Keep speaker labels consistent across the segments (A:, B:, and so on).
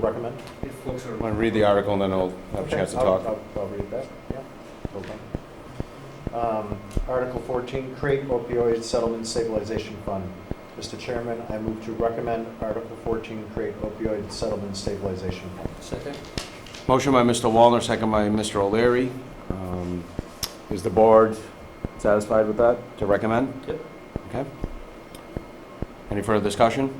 A: recommend?
B: If folks are.
C: I'm going to read the article and then I'll have a chance to
A: Okay, I'll-
C: talk.
A: I'll I'll read that, yeah. Hold on. Um, Article 14, create opioid settlement stabilization fund. Mr. Chairman, I move to recommend Article 14, create opioid settlement stabilization fund.
B: Second?
C: Motion by Mr. Wallner, second by Mr. O'Leary. Um, Is the board satisfied with that, to recommend?
B: Yep.
C: Okay. Any further discussion?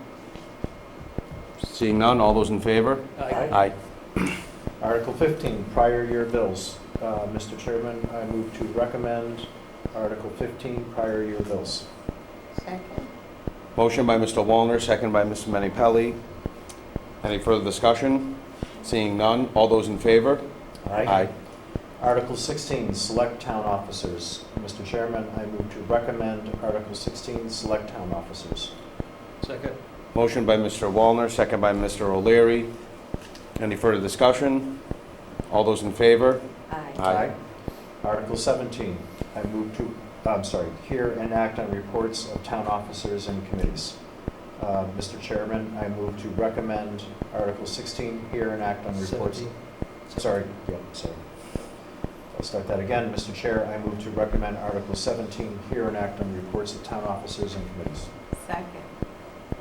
C: Seeing none, all those in favor?
A: Aye.
C: Aye.
A: Article 15, prior year bills. Uh, Mr. Chairman, I move to recommend Article 15, prior year bills.
D: Second.
C: Motion by Mr. Wallner, second by Mr. Menni-Pelli. Any further discussion? Seeing none, all those in favor?
A: Article 16, select town officers. Mr. Chairman, I move to recommend Article 16, select town officers.
B: Second?
C: Motion by Mr. Wallner, second by Mr. O'Leary. Any further discussion? All those in favor?
D: Aye.
C: Aye.
A: Article 17, I move to, I'm sorry, hear and act on reports of town officers and committees. Uh, Mr. Chairman, I move to recommend Article 16, hear and act on reports.
B: Seventeen.
A: Sorry, yeah, sorry. I'll start that again. Mr. Chair, I move to recommend Article 17, hear and act on reports of town officers and committees.
D: Second.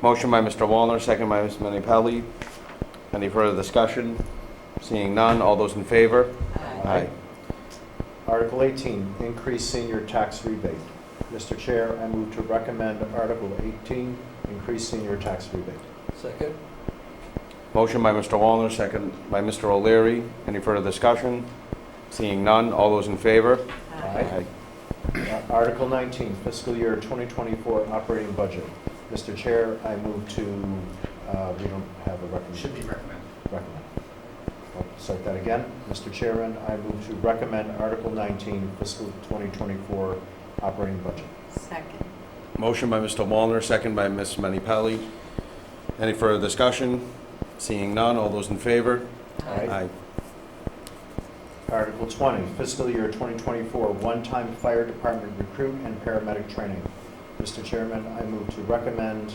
C: Motion by Mr. Wallner, second by Ms. Menni-Pelli. Any further discussion? Seeing none, all those in favor?
D: Aye.
C: Aye.
A: Article 18, increase senior tax rebate. Mr. Chair, I move to recommend Article 18, increase senior tax rebate.
B: Second?
C: Motion by Mr. Wallner, second by Mr. O'Leary. Any further discussion? Seeing none, all those in favor?
A: Aye. Uh, Article 19, fiscal year 2024 operating budget. Mr. Chair, I move to, uh, we don't have a recommend.
B: Should be recommended.
A: recommend. I'll Start that again. Mr. Chairman, I move to recommend Article 19, fiscal 2024 operating budget.
D: Second.
C: Motion by Mr. Wallner, second by Ms. Menni-Pelli. Any further discussion? Seeing none, all those in favor?
A: Aye. Article 20, fiscal year 2024, one-time fire department recruit and paramedic training. Mr. Chairman, I move to recommend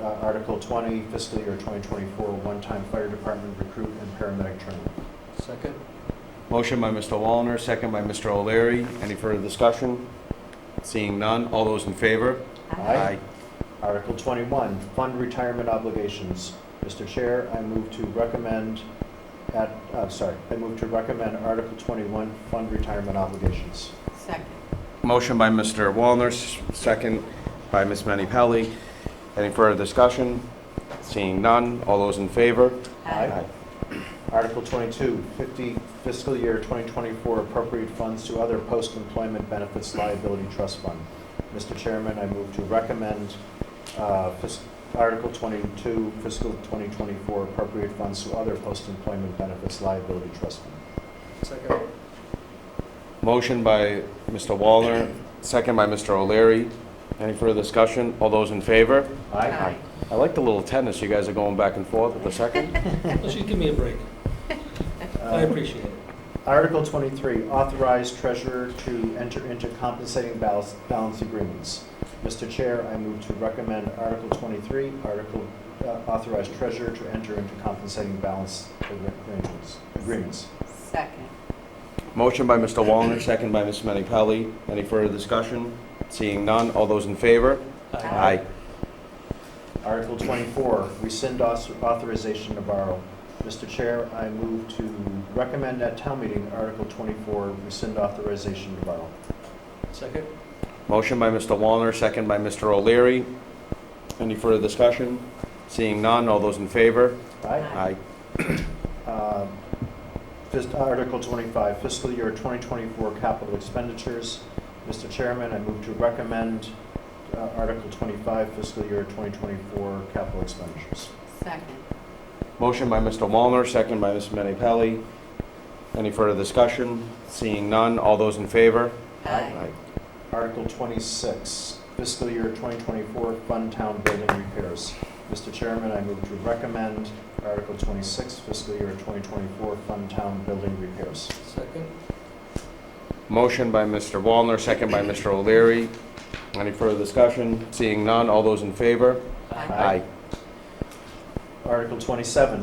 A: uh, Article 20, fiscal year 2024, one-time fire department recruit and paramedic training.
B: Second?
C: Motion by Mr. Wallner, second by Mr. O'Leary. Any further discussion? Seeing none, all those in favor?
A: Aye. Article 21, fund retirement obligations. Mr. Chair, I move to recommend, at, uh, sorry, I move to recommend Article 21, fund retirement obligations.
D: Second.
C: Motion by Mr. Wallner, s- second by Ms. Menni-Pelli. Any further discussion? Seeing none, all those in favor?
A: Aye. Article 22, 50 fiscal year 2024 appropriate funds to other post-employment benefits liability trust fund. Mr. Chairman, I move to recommend uh, fis- Article 22, fiscal 2024 appropriate funds to other post-employment benefits liability trust fund.
B: Second?
C: Motion by Mr. Wallner, second by Mr. O'Leary. Any further discussion? All those in favor?
D: Aye.
C: I like the little tennis. You guys are going back and forth with the second.
B: Well, she'd give me a break. I
A: Uh,
B: appreciate it.
A: Article 23, authorize treasurer to enter into compensating balance balance agreements. Mr. Chair, I move to recommend Article 23, article, uh, authorize treasurer to enter into compensating balance arrangements- agreements.
D: Second.
C: Motion by Mr. Wallner, second by Ms. Menni-Pelli. Any further discussion? Seeing none, all those in favor?
D: Aye.
A: Article 24, rescind aus- authorization to borrow. Mr. Chair, I move to recommend at town meeting Article 24, rescind authorization to borrow.
B: Second?
C: Motion by Mr. Wallner, second by Mr. O'Leary. Any further discussion? Seeing none, all those in favor?
A: Aye?
C: Aye.
A: Um, fis- Article 25, fiscal year 2024 capital expenditures. Mr. Chairman, I move to recommend uh, Article 25, fiscal year 2024 capital expenditures.
D: Second.
C: Motion by Mr. Wallner, second by Ms. Menni-Pelli. Any further discussion? Seeing none, all those in favor?
D: Aye.
A: Article 26, fiscal year 2024 fund town building repairs. Mr. Chairman, I move to recommend Article 26, fiscal year 2024 fund town building repairs.
B: Second?
C: Motion by Mr. Wallner, second by Mr. O'Leary. Any further discussion? Seeing none, all those in favor?
A: Aye. Article 27,